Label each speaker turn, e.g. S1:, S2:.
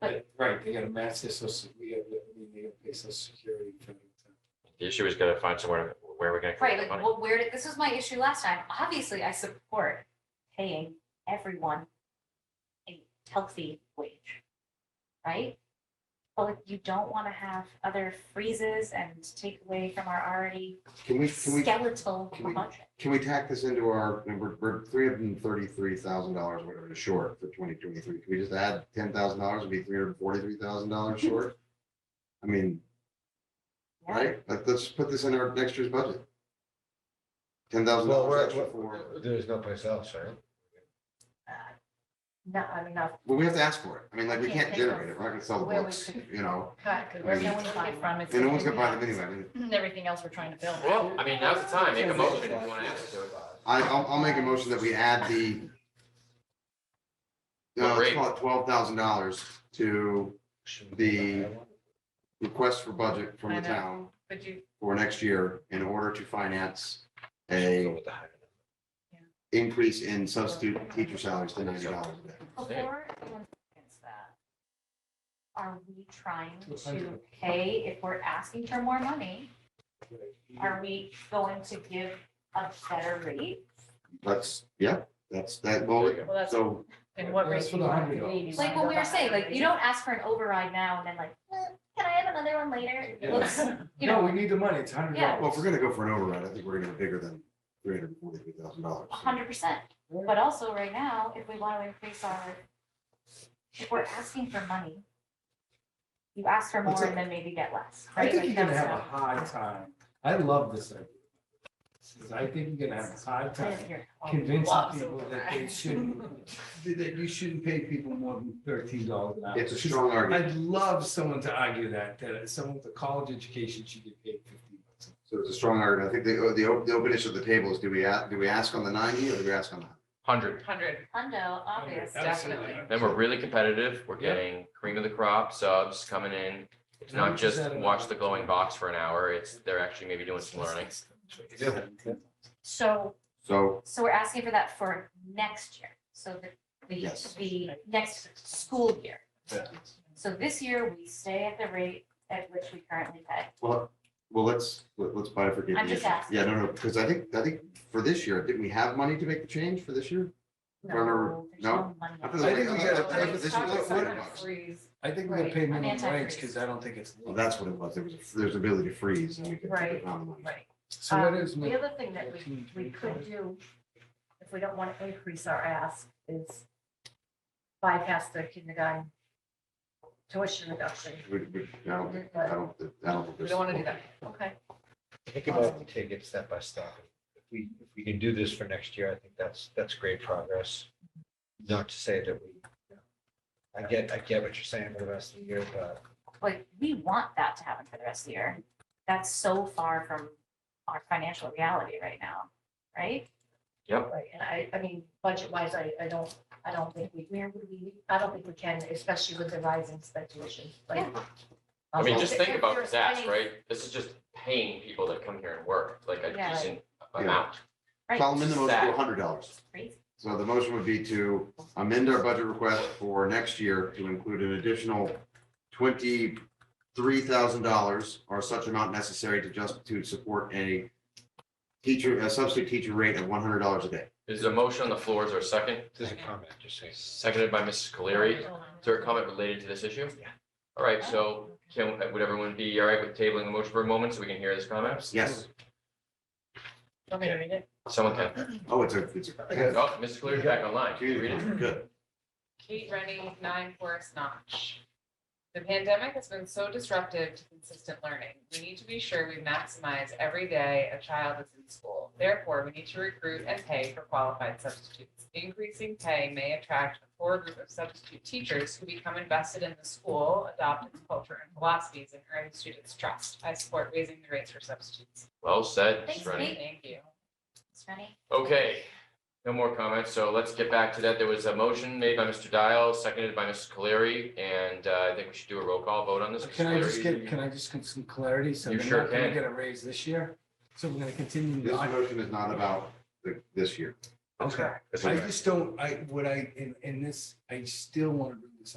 S1: But-
S2: Right, they gotta match this, so we have, we gotta pay social security. for it.
S3: The issue is gonna find somewhere, where we're gonna
S1: Right,
S3: collect the
S1: like,
S3: money.
S1: well, where did, this was my issue last time. Obviously, I support paying everyone a healthy wage, right? But like, you don't want to have other freezes and take away from our already
S4: Can we, can we,
S1: skeletal
S4: can we-
S1: budget.
S4: can we tack this into our, we're, we're three hundred and thirty-three thousand dollars, whatever, short for twenty twenty-three. Can we just add ten thousand dollars, it'd be three hundred and forty-three thousand dollars
S5: Mm-hmm.
S4: short? I mean,
S1: Yeah.
S4: right, Let- let's put this in our next year's budget. Ten thousand
S6: Well,
S4: dollars
S6: we're,
S4: extra for,
S6: we're- there's no place else, right?
S1: Not, I mean, not
S4: well, we have to ask for it. I mean, like, we
S5: Can't
S4: can't
S5: think of
S4: generate it, we're not gonna sell the
S5: where we
S4: books,
S5: could-
S4: you know,
S5: cut, because where
S4: I mean-
S5: no one's gonna get from it.
S4: and no one's gonna buy them anyway. I mean,
S5: Everything else we're trying to build.
S3: Well, I mean, now's the time, make a motion if you wanna add it to it.
S4: I, I'll, I'll make a motion that we add the.
S3: What
S4: Uh, let's
S3: rate?
S4: call it twelve thousand dollars to The- request for budget from
S5: I
S4: the
S5: know.
S4: town
S5: But you,
S4: for next year in order to finance a
S3: With the higher number.
S4: increase in substitute teacher salaries to ninety dollars a day.
S1: before anyone against that. Are we trying
S2: To a
S1: to
S2: hundred.
S1: pay, if we're asking for more money, are we going to give a better rate?
S4: That's, yeah, that's that,
S3: There
S4: well,
S3: you go.
S5: well, that's,
S4: so,
S5: and what
S2: That's
S5: rate
S2: for
S5: you
S2: the
S5: want
S2: hundred
S5: it to be. Do you
S1: Like
S5: wanna
S1: what
S5: go
S1: we were
S5: back
S1: saying,
S5: to
S1: like you
S5: rate?
S1: don't ask for an override now and then like, "Eh, can I have another one later?
S2: Yeah.
S1: Let's, you
S2: No, we
S1: know,
S2: need the money, it's a hundred
S1: Yeah.
S2: dollars.
S4: well, if we're gonna go for an override, I think we're gonna be bigger than three hundred and forty-three thousand dollars.
S1: a hundred percent. But also right now, if we want to increase our, if we're asking for money, you ask for more and then maybe get less,
S2: I
S1: right?
S2: think
S1: Like,
S2: you're gonna
S1: that's
S2: have a
S1: not-
S2: hard time. I love this idea. Because I think you're gonna have a hard time
S1: If you're-
S2: convincing
S5: Lots of
S2: people that they
S5: overrides.
S2: shouldn't, that you shouldn't pay people more than thirteen dollars an hour.
S4: It's a strong argument,
S2: I'd love someone to argue that, that someone with a college education should get paid fifteen bucks.
S4: so it's a strong argument. I think the, the, op- the open issue of the table is, do we, a- do we ask on the ninety or do we ask on the?
S3: Hundred,
S5: Hundred,
S1: Hundo, obvious.
S5: definitely.
S3: then we're really competitive, we're
S2: Yeah.
S3: getting cream of the crop, subs coming in. It's
S2: How
S3: not
S2: much is
S3: just
S2: that an
S3: watch
S2: hour?
S3: the glowing box for an hour, it's, they're actually maybe doing some learning.
S1: So,
S4: So,
S1: so we're asking for that for next year, so the, the,
S4: Yes.
S1: the next school year.
S2: Yeah.
S1: So this year, we stay at the rate at which we currently pay.
S4: well, well, let's, let- let's buy it for.
S1: I'm just asking.
S4: Yeah, no, no, because I think, I think for this year, didn't we have money to make the change for this year? Or no,
S1: there's
S4: no?
S1: money.
S4: I thought it was
S2: I think
S4: like-
S2: we gotta
S4: I
S2: pay
S4: thought
S2: for
S4: this
S2: soccer
S4: was like
S2: side.
S4: 100 bucks.
S2: I think we're gonna
S5: Right,
S2: pay
S1: I'm
S2: minimum wage,
S1: anti-freeze.
S2: because I don't think it's.
S4: Well, that's what it was. There was, there's ability to freeze and we could.
S5: Right.
S4: Right.
S5: right.
S2: So what
S5: Um,
S2: is?
S5: The other thing that we, we could
S2: 14.25?
S5: do, if we don't want to increase our ask, is bypass the kindergarten tuition reduction.
S4: We, we, I don't, think- I don't, I don't.
S5: We
S4: think there's-
S5: don't want to do that, okay?
S6: Think about it, and take it step by step. If we, if we can do this for next year, I think that's, that's great progress. Not to say that we, you know, I get, I get what you're saying for the rest of the year, but
S1: Like, we want that to happen for the rest of the year. That's so far from our financial reality right now, right?
S5: Right, and I, I mean, budget wise, I, I don't, I don't think we,
S1: Where would we?
S5: I don't think we can, especially with the rising speculation, like.
S3: I mean,
S5: Also,
S3: just
S5: if-
S3: think
S5: if
S3: about
S5: you're
S3: that,
S5: spending-
S3: right? This is just paying people that come here and work, like a
S1: Yeah.
S3: decent
S4: Yeah.
S3: amount.
S1: Right,
S4: So I'll amend the motion to
S3: Sad.
S4: hundred dollars.
S1: it's crazy.
S4: So the motion would be to amend our budget request for next year to include an additional twenty-three thousand dollars or such amount necessary to just, to support a teacher, a substitute teacher rate of one hundred dollars a day.
S3: Is there a motion on the floor, is there a second?
S6: there's a comment, just saying.
S3: Seconded by Mrs. Cleary. Is there a comment related to this issue?
S6: Yeah.
S3: All right, so can, would everyone be all right with tabling the motion for a moment so we can hear this comment?
S4: Yes.
S5: Want me to read it?
S3: Someone can.
S4: Oh, it's a, it's a.
S3: Oh, Mrs. Cleary's back online. Can you read it?
S4: Community, good.
S7: Kate Rennie, nine Forest Notch. The pandemic has been so disruptive to consistent learning. We need to be sure we maximize every day a child is in school. Therefore, we need to recruit and pay for qualified substitutes. Increasing pay may attract a poor group of substitute teachers who become invested in the school, adopt its culture and philosophies, and earn students' trust. I support raising the rates for substitutes.
S3: Well said,
S1: Thanks,
S3: Mrs. Rennie.
S1: Kate.
S7: Thank you.
S1: It's funny.
S3: Okay, no more comments, so let's get back to that. There was a motion made by Mr. Dial, seconded by Mrs. Cleary, and uh, I think we should do a roll call vote on this. Mrs.
S2: Can I just
S3: Cleary,
S2: get, can I just get some clarity? So
S3: You
S2: they're
S3: sure
S2: not gonna
S3: can.
S2: get a raise this year? So we're gonna continue.
S4: This
S2: not-
S4: motion is not about the- this year.
S2: Okay.
S6: That's
S2: I
S6: correct.
S2: just don't, I, what I, in, in this, I still want to bring this up.